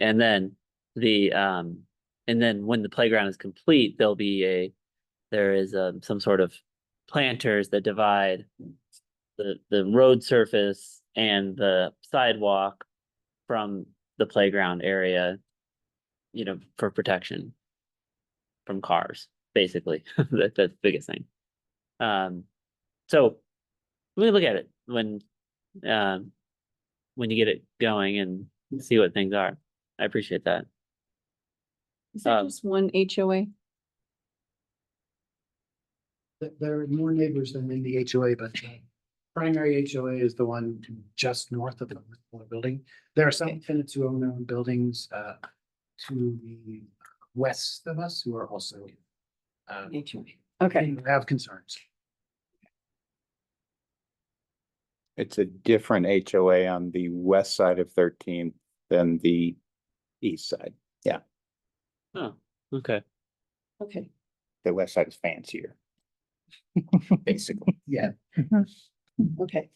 And then the, um, and then when the playground is complete, there'll be a, there is, um, some sort of planters that divide the, the road surface and the sidewalk from the playground area, you know, for protection from cars, basically. That, that's the biggest thing. Um, so we look at it when, um, when you get it going and see what things are. I appreciate that. Is there Um, just one HOA? Th- There are more neighbors than in the HOA, but the primary HOA is the one just north of the Whitmore building. There are some tenants who own their own buildings uh to the west of us who are also uh, Okay, who have concerns. It's a different HOA on the west side of thirteen than the east side. Oh, okay. Mm-hmm. okay. The west side is fancier. Basically, at Yeah, Okay.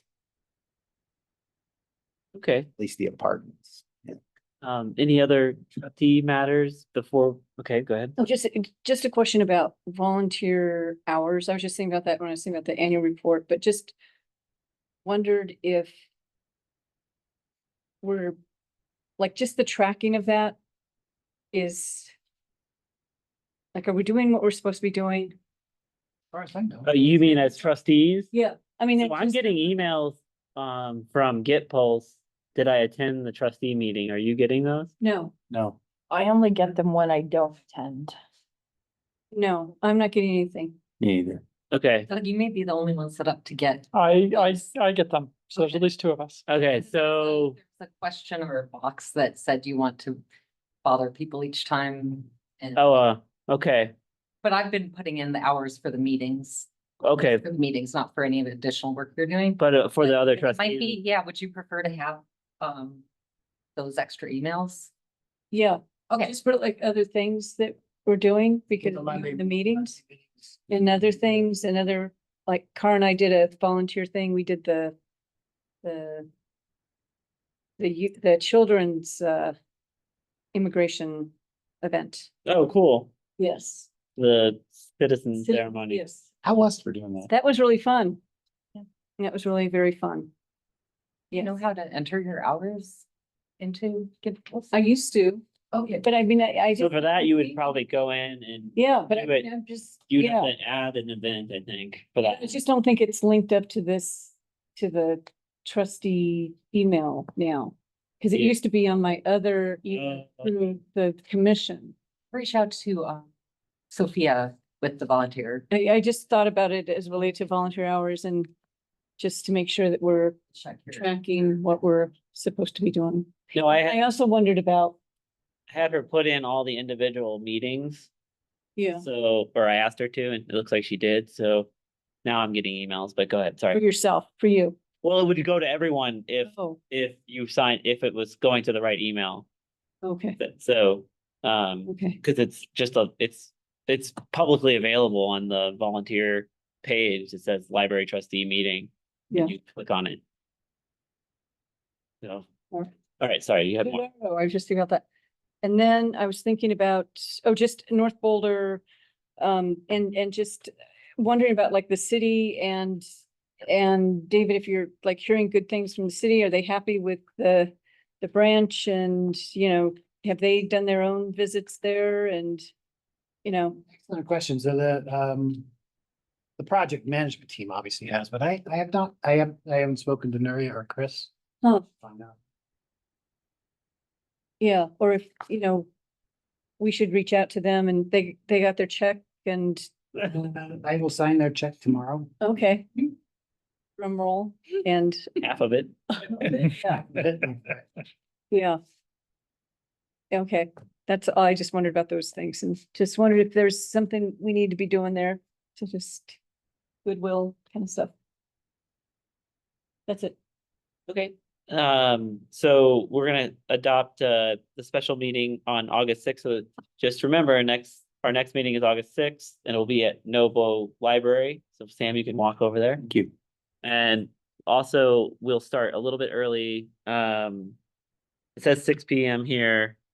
Okay. least the apartments. Yeah. Um, any other trustee matters before? Okay, go ahead. Oh, just, just a question about volunteer hours. I was just thinking about that when I was thinking about the annual report, but just wondered if we're, like, just the tracking of that is like, are we doing what we're supposed to be doing? as far as I know. Oh, you mean as trustees? Yeah. I mean, So it's I'm just- getting e-, emails, um, from Get Pulse. Did I attend the trustee meeting? Are you getting those? no, No, I only get them when I don't attend. no, I'm not getting anything. neither. Okay, Doug, you may be the only one set up to get. I, I, I get them. So there's at Okay. least two of us. okay, so, There's A question or a box that said you want to bother people each time. And, oh, uh, okay, but I've been putting in the hours for the meetings. okay, For the meetings, not for any of the additional work you're doing. but uh, for the other It Might be, trustees. yeah, would you prefer to have, um, those extra emails? Yeah. Okay, Just for like other things that we're doing because The of Monday- the meetings and other things and other, like Car and I did a volunteer thing. We did the, the, the, you- the children's, uh, immigration event. Oh, cool. Yes. The citizen Citi- Mm, ceremony. Yes. How was for doing that? That was really fun. Yeah. That was really very fun. you know Yes. how to enter your hours into Give Pulse? I used to, Okay, but I mean, I, I. So for didn't that, you would completely- probably go in and Yeah, but I do it. mean, I'm just, you'd have yeah. to add an event, I think, for that. I just don't think it's linked up to this, to the trustee email now. Cause it Yeah. used to be on my other, e- Uh, through the commission. reach out to, um, Sophia with the volunteer. I, I just thought about it as related to volunteer hours and just to make sure that we're Check your- tracking what we're supposed to be doing. No, I I had, also wondered about, had her put in all the individual meetings. yeah, So, or I asked her to, and it looks like she did, so now I'm getting emails, but go ahead, for sorry. yourself, for you. Well, it would go to everyone if, Oh, if you signed, if it was going to the right email, okay, But- so, um, okay, cause it's just a, it's, it's publicly available on the volunteer page, it says library trustee meeting. Yeah. You click on it. So, Alright. alright, sorry, you had No, more, no, no, I was just thinking about that. And then I was thinking about, oh, just North Boulder, um, and, and just wondering about like the city and, and David, if you're like hearing good things from the city, are they happy with the, the branch and, you know, have they done their own visits there and, you know, Excellent question. So the, um, the project management team obviously has, but I, I have not, I have, I haven't spoken to Nuria or Chris. Huh. Find out. yeah, or if, you know, we should reach out to them and they, they got their check and, I will sign their check tomorrow. okay. Drum roll and, half of it. yeah. Yeah. Okay, that's all. I just wondered about those things and just wondered if there's something we need to be doing there to just goodwill kind of stuff. That's it. Okay, um, so we're gonna adopt, uh, the special meeting on August sixth, so just remember, our next, our next meeting is August sixth, and it'll be at Novo Library, so Sam, you can walk over there. Thank you. And also, we'll start a little bit early, um, it says six P M here,